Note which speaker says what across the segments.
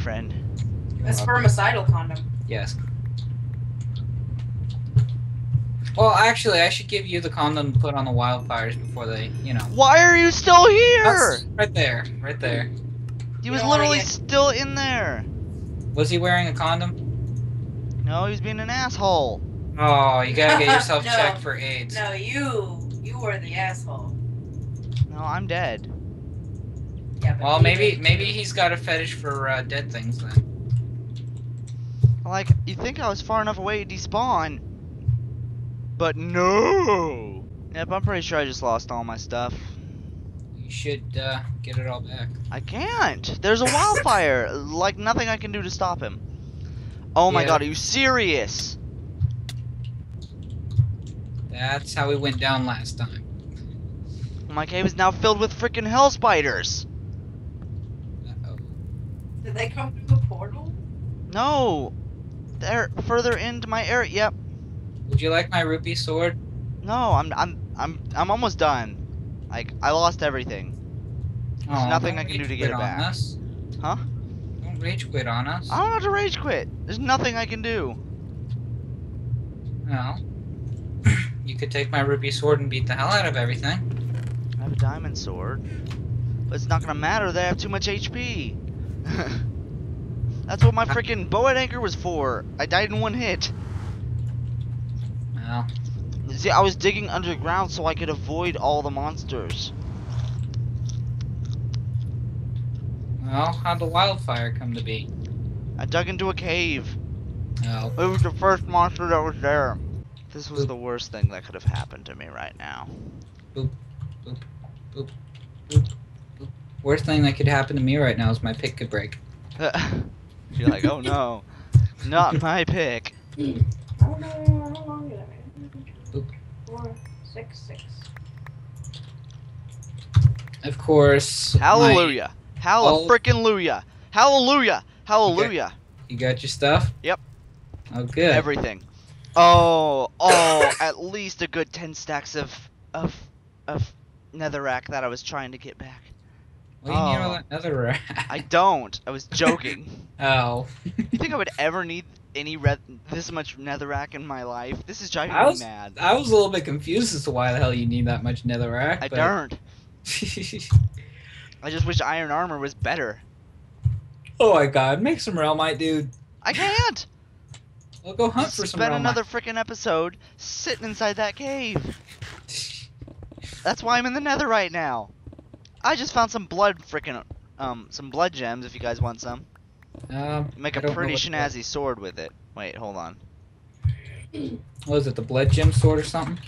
Speaker 1: friend.
Speaker 2: A
Speaker 3: Uh,
Speaker 2: spermicidal condom.
Speaker 3: Yes. Well, actually, I should give you the condom to put on the wildfires before they, you know.
Speaker 1: Why are you still here?
Speaker 3: That's- right there, right there.
Speaker 1: he
Speaker 2: You
Speaker 1: was
Speaker 2: don't wanna
Speaker 1: literally
Speaker 2: get-
Speaker 1: still in there.
Speaker 3: Was he wearing a condom?
Speaker 1: No, he was being an asshole.
Speaker 3: Oh, you gotta get yourself
Speaker 2: No.
Speaker 3: checked for AIDS.
Speaker 2: No, you you were the asshole.
Speaker 1: No, I'm dead.
Speaker 2: Yeah, but
Speaker 3: Well,
Speaker 2: you
Speaker 3: maybe
Speaker 2: did.
Speaker 3: maybe he's got a fetish for uh, dead things then.
Speaker 1: Like, you think I was far enough away to despawn. But no! Yep, I'm pretty sure I just lost all my stuff.
Speaker 3: You should uh, get it all back.
Speaker 1: I can't! There's a wildfire! like, nothing I can do to stop him. Oh my
Speaker 3: Yeah.
Speaker 1: god, are you serious?
Speaker 3: That's how we went down last time.
Speaker 1: My cave is now filled with freaking hell spiders!
Speaker 3: Uh-oh.
Speaker 2: Did they come through the portal?
Speaker 1: No! They're further into my area. Yep.
Speaker 3: Would you like my rupee sword?
Speaker 1: No, I'm I'm I'm I'm almost done. Like I lost everything. There's nothing
Speaker 3: Oh, don't
Speaker 1: I can do
Speaker 3: rage
Speaker 1: to get
Speaker 3: quit
Speaker 1: it
Speaker 3: on
Speaker 1: back.
Speaker 3: us.
Speaker 1: Huh? Ah.
Speaker 3: Don't rage quit on us.
Speaker 1: I don't have to rage quit. There's nothing I can do.
Speaker 3: No. you could take my rupee sword and beat the hell out of everything.
Speaker 1: I have a diamond sword. But it's not gonna matter that I have too much HP. That's what my freaking bow and anchor was for. I died in one hit.
Speaker 3: Well,
Speaker 1: See, I was digging underground so I could avoid all the monsters.
Speaker 3: well, how'd the wildfire come to be?
Speaker 1: I dug into a cave.
Speaker 3: Oh,
Speaker 1: It was the first monster that was there. This was the worst thing that could have happened to me right now.
Speaker 3: worst thing that could happen to me right now is my pick could break.
Speaker 1: You're like, oh no, not my pick.
Speaker 2: I don't know how long did I
Speaker 3: Oop.
Speaker 2: Four, six, six.
Speaker 3: Of course. my-
Speaker 1: Hallelujah.
Speaker 3: all-
Speaker 1: Hallelujah. Frickin' Hallelujah. Hallelujah. Hallelujah.
Speaker 3: you got your stuff?
Speaker 1: Yep.
Speaker 3: Oh, good.
Speaker 1: Everything. Oh, oh, at least a good 10 stacks of, of, of netherrack that I was trying to get back.
Speaker 3: what do you need
Speaker 1: Oh.
Speaker 3: all that nether rat?
Speaker 1: I don't. I was joking.
Speaker 3: Oh.
Speaker 1: you think I would ever need any red, this much netherrack in my life? This is driving
Speaker 3: I
Speaker 1: me
Speaker 3: was-
Speaker 1: mad.
Speaker 3: I was a little bit confused as to why the hell you need that much nether
Speaker 1: I
Speaker 3: rack.
Speaker 1: don't.
Speaker 3: don't.
Speaker 1: I just wish iron armor was better.
Speaker 3: oh my god, make some realmite, dude.
Speaker 1: I can't.
Speaker 3: We'll go hunt for some
Speaker 1: Spend
Speaker 3: realmite.
Speaker 1: another frickin' episode sitting inside that cave. That's why I'm in the nether right now. I just found some blood frickin' um some blood gems if you guys want some.
Speaker 3: Um,
Speaker 1: Make
Speaker 3: I
Speaker 1: a
Speaker 3: don't know
Speaker 1: pretty
Speaker 3: what-
Speaker 1: snazzy sword with it. Wait, hold on.
Speaker 3: What is it, the blood gem sword or something?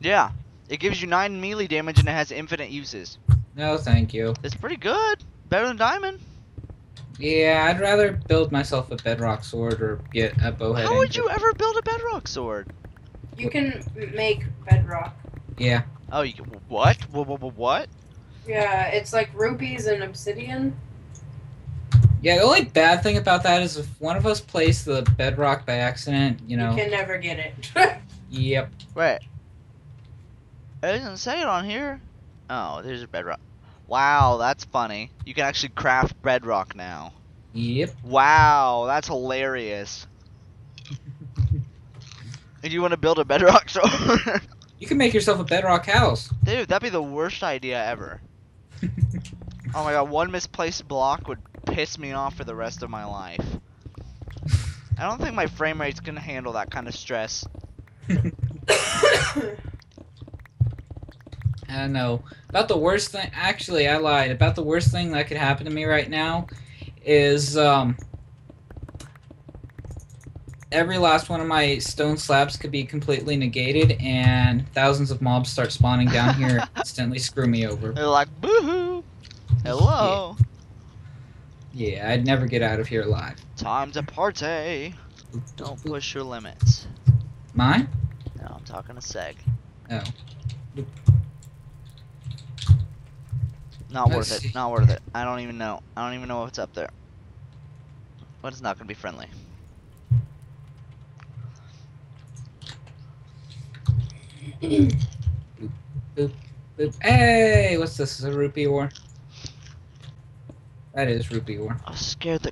Speaker 1: Yeah. It gives you nine melee damage and it has infinite uses.
Speaker 3: No, thank you.
Speaker 1: It's pretty good. Better than diamond.
Speaker 3: Yeah, I'd rather build myself a bedrock sword or get a bowhead.
Speaker 1: How would
Speaker 3: anchor.
Speaker 1: you ever build a bedrock sword?
Speaker 2: You can make bedrock.
Speaker 3: Yeah.
Speaker 1: Oh, you, what? What? What? What? what?
Speaker 2: Yeah, it's like rupees and obsidian.
Speaker 3: Yeah, the only bad thing about that is if one of us plays the bedrock by accident, you know.
Speaker 2: You can never get it.
Speaker 3: Yep.
Speaker 1: Wait. It doesn't say it on here. Oh, there's a bedrock. Wow, that's funny. You can actually craft bedrock now.
Speaker 3: Yep.
Speaker 1: Wow, that's hilarious. Do you want to build a bedrock sword?
Speaker 3: You can make yourself a bedrock house.
Speaker 1: Dude, that'd be the worst idea ever. Oh my god, one misplaced block would piss me off for the rest of my life. I don't think my frame rate's gonna handle that kind of stress.
Speaker 3: I know. About the worst thing actually I lied. About the worst thing that could happen to me right now is um every last one of my stone slabs could be completely negated and thousands of mobs start spawning down here and instantly screw me over.
Speaker 1: They're like, boohoo! Hello!
Speaker 3: Yeah, I'd never get out of here alive.
Speaker 1: Time to party! Don't push your limits.
Speaker 3: Mine?
Speaker 1: No, I'm talking to Seg.
Speaker 3: Oh.
Speaker 1: Not
Speaker 3: I
Speaker 1: worth
Speaker 3: see.
Speaker 1: it. Not worth it. I don't even know. I don't even know what's up there. But it's not gonna be friendly.
Speaker 3: Boop. Hey, what's this? Is a rupee or? That is rupee war.
Speaker 1: I was scared the